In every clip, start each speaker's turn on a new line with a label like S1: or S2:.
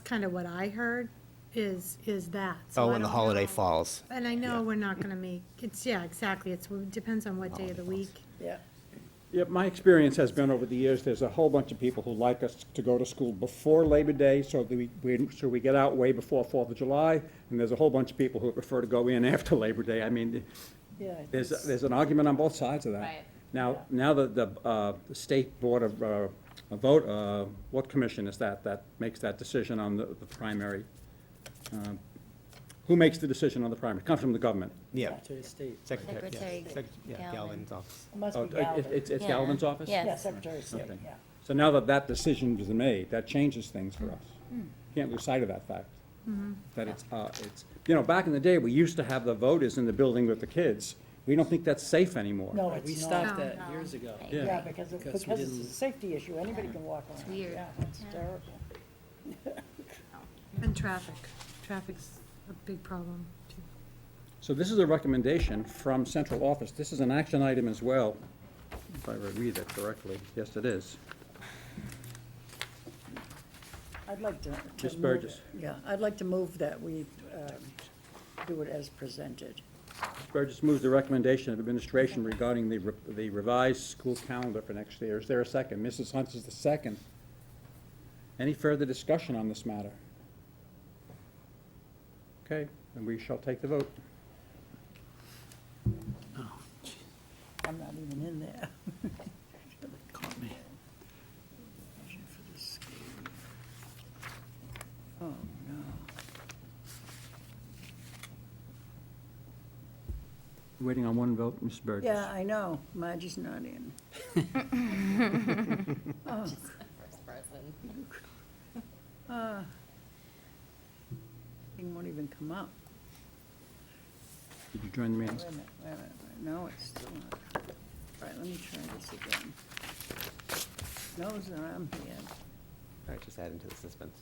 S1: kind of what I heard, is, is that. So
S2: Oh,
S1: I
S2: when the
S1: don't
S2: holiday
S1: know.
S2: falls.
S1: And I know we're not gonna make, it's, yeah, exactly, it's, it depends on what day of the week.
S3: Yeah.
S4: Yeah, my experience has been over the years, there's a whole bunch of people who like us to go to school before Labor Day, so that we, we- so we get out way before Fourth of July, and there's a whole bunch of people who prefer to go in after Labor Day. I mean,
S3: Yeah,
S4: there's, there's an argument on both sides of that.
S5: Right.
S4: Now, now that the, uh, the State Board of, uh, a vote, uh, what commission is that, that makes that decision on the, the primary? Um, Who makes the decision on the primary? Comes from the government.
S2: Yeah.
S6: Secretary of State.
S2: Secretary, yeah.
S5: Secretary
S2: Sec- yeah,
S5: Galvin.
S2: Galvin's office.
S3: It must
S4: Oh,
S3: be
S4: it-
S3: Galvin.
S4: It's, it's
S5: Yeah.
S4: Galvin's office?
S5: Yeah.
S3: Yeah, Secretary of State,
S4: Okay.
S3: yeah.
S4: So now that that decision was made, that changes things for us. Can't lose sight of that fact. That it's, uh, it's, you know, back in the day, we used to have the voters in the building with the kids. We don't think that's safe anymore.
S3: No,
S6: We
S3: it's not.
S6: stopped
S1: No,
S6: that
S5: no.
S6: years ago.
S5: Right.
S4: Yeah.
S3: Yeah, because, it-
S6: Because
S3: because
S6: we
S3: it's a
S6: didn't-
S3: safety issue. Anybody can walk around.
S5: weird.
S3: Yeah, it's
S5: Yeah.
S3: terrible.
S1: And traffic, traffic's a big problem, too.
S4: So this is a recommendation from central office. This is an action item as well, if I read it correctly. Yes, it is.
S3: I'd like to. to
S4: Ms.
S3: move
S4: Burgess.
S3: it. Yeah, I'd like to move that we um, do it as presented.
S4: Burgess moves the recommendation of administration regarding the re- the revised school calendar for next year. Is there a second? Mrs. Hunt is the second. Any further discussion on this matter? Okay, and we shall take the vote.
S3: I'm not even in there.
S6: Caught me.
S3: Oh, no.
S4: Waiting on one vote, Mrs. Burgess.
S3: Yeah, I know. Margie's not in. Oh,
S5: First person.
S3: uh, Thing won't even come up.
S4: Did you join the
S3: Wait a
S4: meeting?
S3: minute, wait a minute, wait- no, it's still not. All right, let me try this again. No's that I'm here.
S2: All right, just add into the suspense.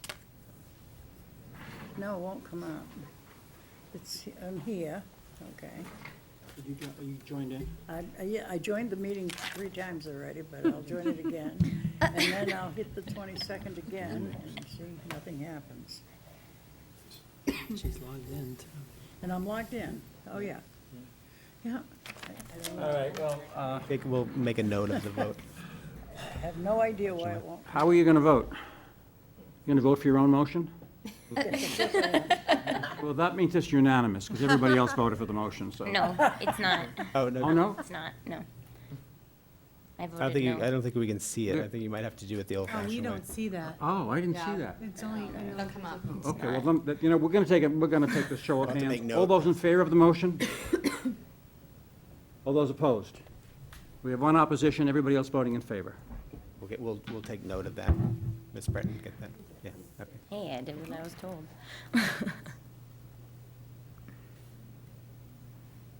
S3: No, it won't come up. It's, I'm here, okay.
S6: Did you, jo- you joined in?
S3: I, I- yeah, I joined the meeting three times already, but I'll join it again. And then I'll hit the twenty-second again and see, nothing happens.
S6: She's logged in, too.
S3: And I'm logged in, oh, yeah. Yeah, I I don't know,
S4: right, well.
S2: Make- We'll make a note of the vote.
S3: I have no idea why it won't.
S4: How are you going to vote? You going to vote for your own motion? Well, that means it's unanimous, because everybody else voted for the motion, so.
S5: No, it's not.
S2: Oh,
S4: Oh,
S2: no,
S4: no?
S5: It's not, no. I
S2: I don't
S5: voted
S2: think, you- I
S5: no.
S2: don't think we can see it. I think you might have to do it the old
S1: Oh,
S2: fashioned way.
S1: we don't see that.
S4: Oh, I didn't see
S5: Yeah.
S4: that.
S1: It's only, I know,
S5: It'll come up.
S4: Okay, well, then, that- you know, we're gonna take, a- we're gonna take the show of
S2: I'll have to make
S4: hands.
S2: note.
S4: All those in favor of the motion? All those opposed? We have one opposition, everybody else voting in favor.
S2: We'll get, we'll, we'll take note of that. Ms. Breton, get that? Yeah, okay.
S5: Hey, I did what I was told.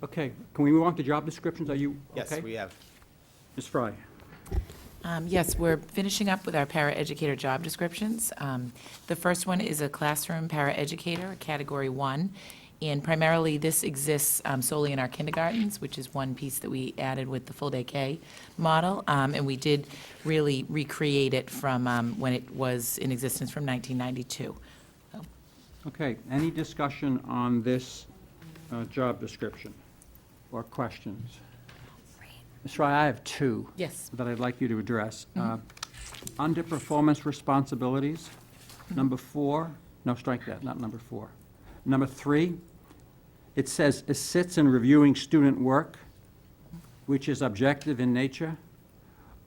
S4: Okay, can we move on to job descriptions? Are you okay?
S2: Yes, we have.
S4: Ms. Fry?
S7: Um, Yes, we're finishing up with our paraeducator job descriptions. Um, The first one is a classroom paraeducator, Category 1, and primarily this exists um, solely in our kindergartens, which is one piece that we added with the full-day K model, Um, and we did really recreate it from um, when it was in existence from 1992.
S4: Okay, any discussion on this uh, job description or questions? Ms. Fry, I have two.
S7: Yes.
S4: that I'd like you to address.
S7: Mm-hmm.
S4: Uh, Under performance responsibilities,
S7: Mm-hmm.
S4: number four, no, strike that, not number four. Number three, it says assists in reviewing student work, which is objective in nature.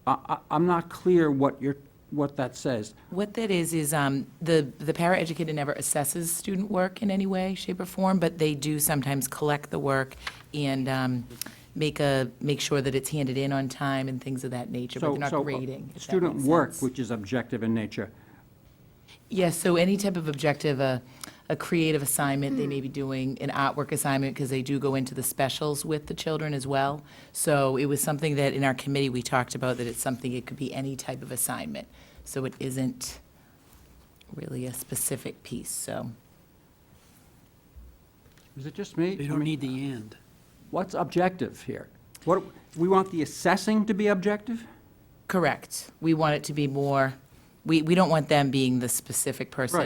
S4: I, I, I'm not clear what you're, what that says.
S7: What that is, is um, the, the paraeducator never assesses student work in any way, shape, or form, but they do sometimes collect the work and um, make a, make sure that it's handed in on time and things of that nature, but
S4: So,
S7: they're not
S4: so, uh,
S7: grading. if that
S4: Student
S7: makes
S4: work,
S7: sense.
S4: which is objective in nature.
S7: Yes, so any type of objective, a, a creative assignment, they may be doing an artwork assignment, because they do go into the specials with the children as well. So it was something that in our committee, we talked about, that it's something, it could be any type of assignment. So it isn't really a specific piece, so.
S4: Is it just me?
S6: They
S4: I
S6: don't
S4: mean,
S6: need the "and."
S4: What's objective here? What, we want the assessing to be objective?
S7: Correct. We want it to be more, we, we don't want them being the specific person.